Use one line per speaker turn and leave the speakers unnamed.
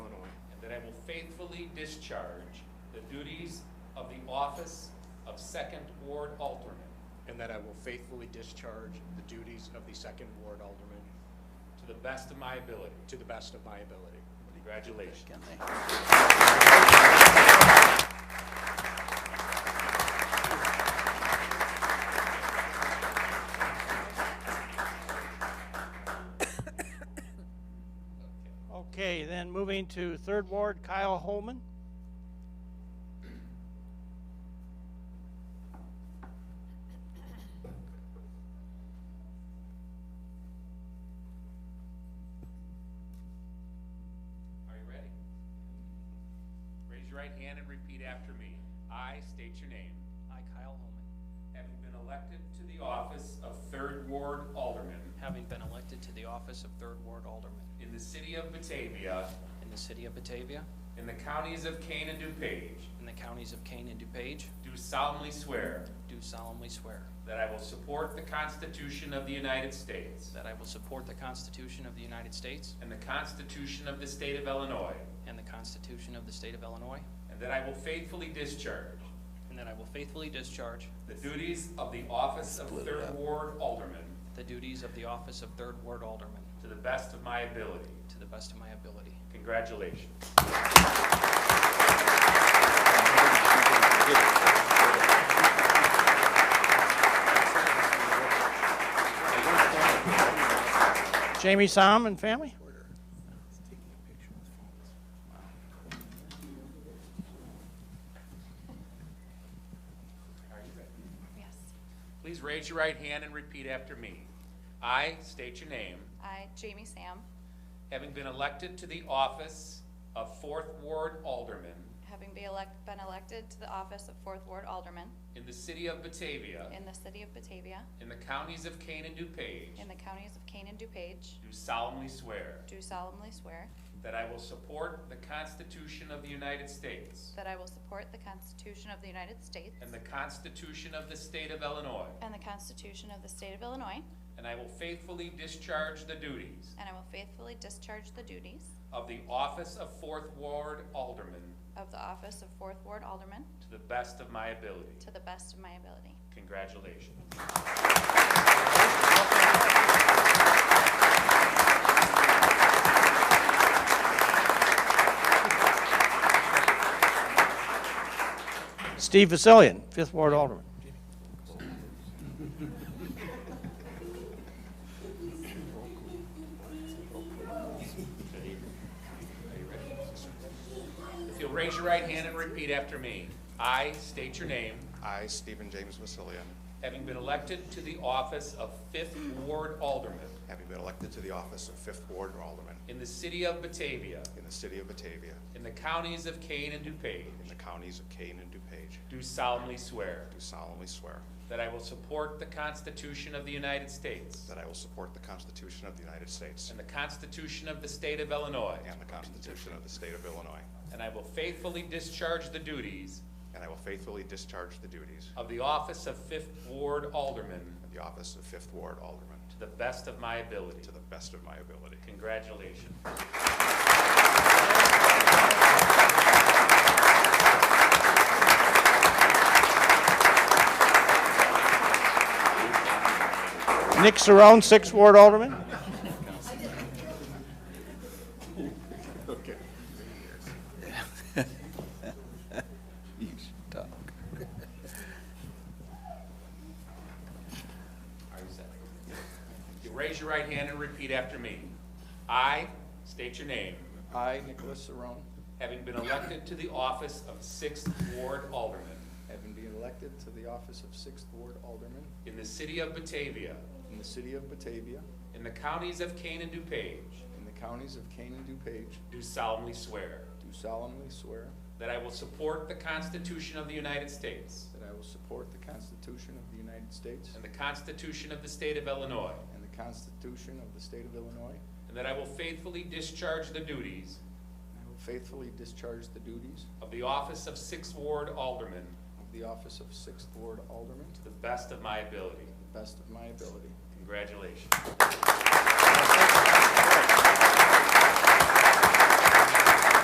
faithfully discharge the duties of the office of Second Ward Alternate
and that I will faithfully discharge the duties of the Second Ward Alderman
to the best of my ability.
to the best of my ability.
Congratulations.
Okay, then moving to Third Ward, Kyle Holman.
Are you ready? Raise your right hand and repeat after me. I state your name.
I, Kyle Holman,
Having been elected to the office of Third Ward Alderman
having been elected to the office of Third Ward Alderman
in the city of Batavia,
in the city of Batavia,
in the counties of Kane and DuPage,
in the counties of Kane and DuPage,
do solemnly swear
do solemnly swear
that I will support the Constitution of the United States
that I will support the Constitution of the United States
and the Constitution of the State of Illinois,
and the Constitution of the State of Illinois,
and that I will faithfully discharge
and that I will faithfully discharge
the duties of the office of Third Ward Alderman
the duties of the office of Third Ward Alderman
to the best of my ability.
to the best of my ability.
Congratulations.
Jamie Somm and family.
Yes.
Please raise your right hand and repeat after me. I state your name,
I, Jamie Sam,
having been elected to the office of Fourth Ward Alderman
having be elect- been elected to the office of Fourth Ward Alderman
in the city of Batavia,
in the city of Batavia,
in the counties of Kane and DuPage,
in the counties of Kane and DuPage,
do solemnly swear
do solemnly swear
that I will support the Constitution of the United States
that I will support the Constitution of the United States
and the Constitution of the State of Illinois,
and the Constitution of the State of Illinois,
and I will faithfully discharge the duties
and I will faithfully discharge the duties
of the office of Fourth Ward Alderman
of the office of Fourth Ward Alderman
to the best of my ability.
to the best of my ability.
Congratulations.
Steve Vasilian, Fifth Ward Alderman.
If you'll raise your right hand and repeat after me. I state your name,
I, Stephen James Vasilian,
having been elected to the office of Fifth Ward Alderman
having been elected to the office of Fifth Ward Alderman
in the city of Batavia,
in the city of Batavia,
in the counties of Kane and
in
DuPage,
the counties of Kane and DuPage,
do solemnly swear
do solemnly swear
that I will support the Constitution of the United States
that I will support the Constitution of the United States
and the Constitution of the State of Illinois,
and the Constitution of the State of Illinois,
and I will faithfully discharge the duties
and I will faithfully discharge the duties
of the office of Fifth Ward Alderman
of the office of Fifth Ward Alderman
to the best of my ability.
to the best of my ability.
Congratulations.
Nick Saron, Sixth Ward Alderman.
You should talk.
Are you set? You raise your right hand and repeat after me. I state your name,
I, Nicholas Saron,
having been elected to the office of Sixth Ward Alderman
having been elected to the office of Sixth Ward Alderman
in the city of Batavia,
in the city of Batavia,
in the counties of Kane and DuPage,
in the counties of Kane and DuPage,
do solemnly swear
do solemnly swear
that I will support the Constitution of the United States
that I will support the Constitution of the United States
and the Constitution of the State of Illinois,
and the Constitution of the State of Illinois,
and that I will faithfully discharge the duties
and I will faithfully discharge the duties
of the office of Sixth Ward Alderman
of the office of Sixth Ward Alderman
to the best of my ability.
to the best of my ability.
Congratulations.